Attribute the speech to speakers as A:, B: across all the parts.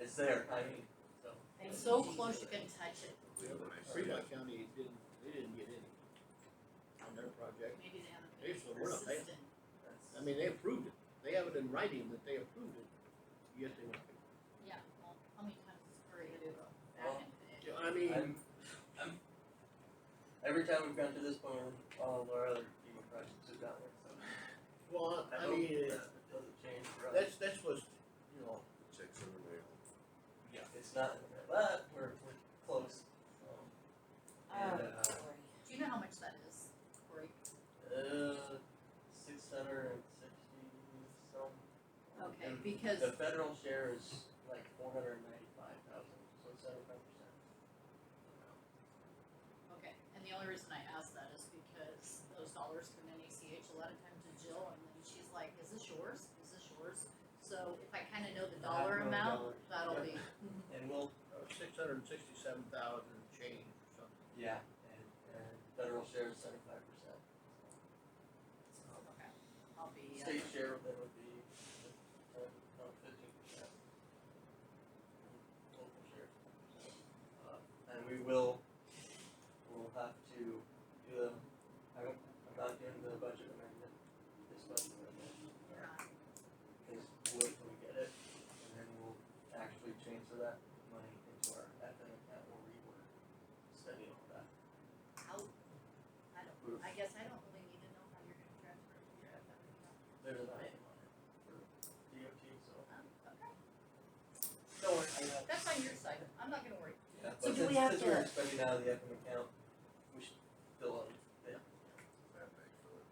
A: it's there, I mean, so.
B: And so close you can touch it,
C: Fremont County didn't, they didn't get any on their project.
B: maybe they haven't
C: They
B: been
C: still were, they-
B: persistent.
A: that's-
C: I mean, they approved it. They have it in writing that they approved it, yet they won't.
B: Yeah, well, how many times is Prairie gonna go
A: Well,
B: back into it?
C: You know, I mean,
A: I'm, I'm, every time we've gotten to this point, all of our other FEMA projects have gotten it, so.
C: well, I
A: hope
C: mean,
A: that
C: uh,
A: it Doesn't change for us.
C: that's, that's what's, you know,
D: Checks in the mail.
A: It's not, in there, but we're, we're close, um,
E: Oh,
A: and, uh,
E: sorry.
B: Do you know how much that is, Cory?
A: Uh, six hundred and sixty some.
B: Okay,
A: And
B: because,
A: The federal share is like four hundred and ninety-five thousand, so it's seventy-five percent.
B: okay, and the only reason I ask that is because those dollars come in ACH a lot of times to Jill, and then she's like, is this yours? Is this yours? So if I kinda know the
A: I
B: dollar
A: know the
B: amount,
A: dollar.
B: that'll be,
A: And we'll,
C: six hundred and sixty-seven thousand change or something.
A: yeah, and, and federal share is seventy-five percent.
B: okay, I'll be, uh,
A: State share of that would be uh, fifteen percent. Local share. Uh, And we will, we'll have to do the, I don't, I'm not doing the budget amendment, this budget amendment.
B: you're not,
A: Because we'll wait till we get it, and then we'll actually transfer that money into our FN account or rework, study all that.
B: out. I don't, I guess I don't really need to know how you're gonna transfer it to your F M account.
A: There's an item on it for DOT, so.
B: Um, okay,
A: Don't worry, I know.
B: that's on your side, I'm not gonna worry.
A: Yeah, but
E: So do
A: since,
E: we have
A: since we're
E: to-
A: expecting out of the Epping account, we should fill up, yeah,
D: That big for it.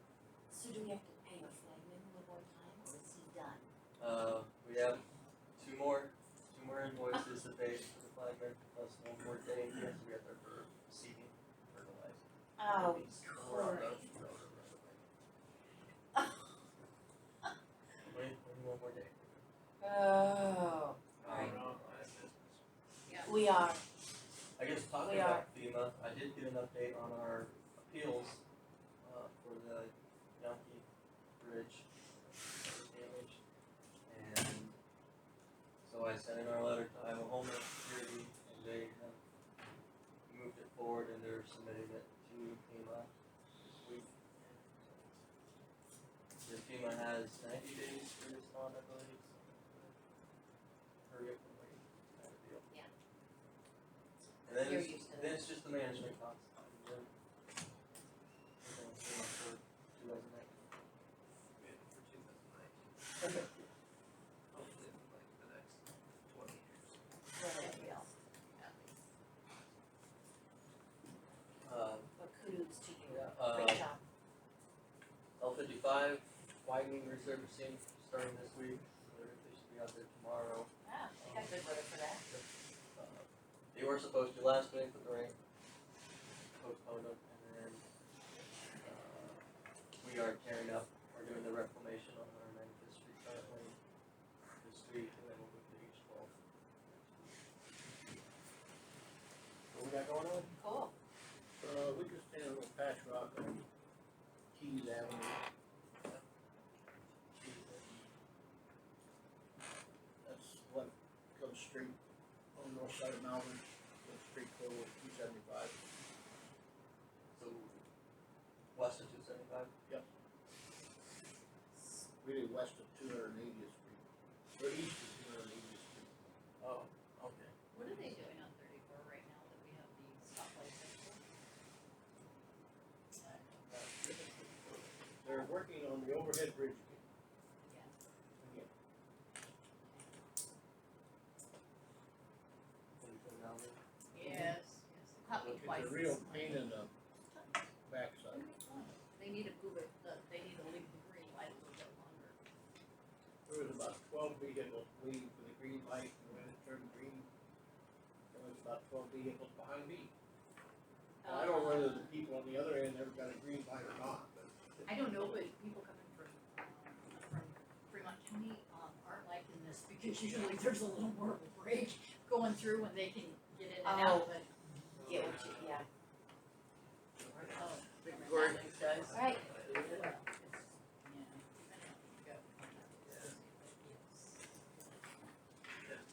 E: So do we have to pay our flagman one more time, or is he done?
A: uh, we have two more, two more invoices to pay for the flagman, plus one more day in here, so we have there for seeding, fertilizer.
E: Oh,
A: These four on
E: Cory.
A: those, those are right away. Wait, wait one more day.
E: oh, Right.
A: Um, I-
E: we are,
A: I guess talking
E: We
A: about FEMA, I did get an update on our appeals, uh, for the Yankee Bridge damage. And so I sent in our letter to Iowa Homeland Security and they have moved it forward and they're submitting it to FEMA this week. The FEMA has ninety days to respond, I believe, so hurry up and wait, kind of deal.
B: Yeah.
A: And then
E: You're
A: it's,
E: used to
A: then it's just the management costs. and then- and then it's FEMA for
F: for two
A: 2019.
F: thousand nineteen. Hopefully in like the next twenty years.
E: well, we are.
A: Uh,
E: but kudos to you,
A: yeah, uh,
E: great job.
A: L fifty-five, widening resurfacing starting this week, so they should be out there tomorrow.
E: Ah, they got good weather for that.
A: Uh, They were supposed to last week, but the rain postponed them, and then, uh, we are tearing up, we're doing the reclamation on our Memphis Street currently this week, and then we'll move to H twelve. What we got going on?
E: Cool.
C: Uh, we just did a little patch rock on Keys Avenue. That's what comes straight on the north side of Malvern, goes straight forward, two seventy-five.
A: So, west of two seventy-five?
C: really west of two hundred and eightieth street, or east of two hundred and eightieth street.
A: Oh, okay.
B: What are they doing on thirty-four right now that we have the stoplight system?
C: They're working on the overhead bridge
B: Yeah.
C: again. Again.
B: Yes, yes, copy twice.
C: It's a real pain in the backside.
B: They need to move it, the- they need to leave the green light a little bit longer.
C: There was about twelve vehicles waiting for the green light, and when it turned green, there was about twelve vehicles behind me. Now, I don't know whether the people on the other end ever got a green light or not, but.
B: I don't know, but people coming from, um, from Fremont County, um, aren't liking this because usually there's a little more of a break going through when they can get in and out,
E: Oh.
B: but.
E: Yeah, what you- yeah.
B: Oh,
C: Thank you,
B: remember
C: Cory.
B: that, thanks, guys.
E: All right,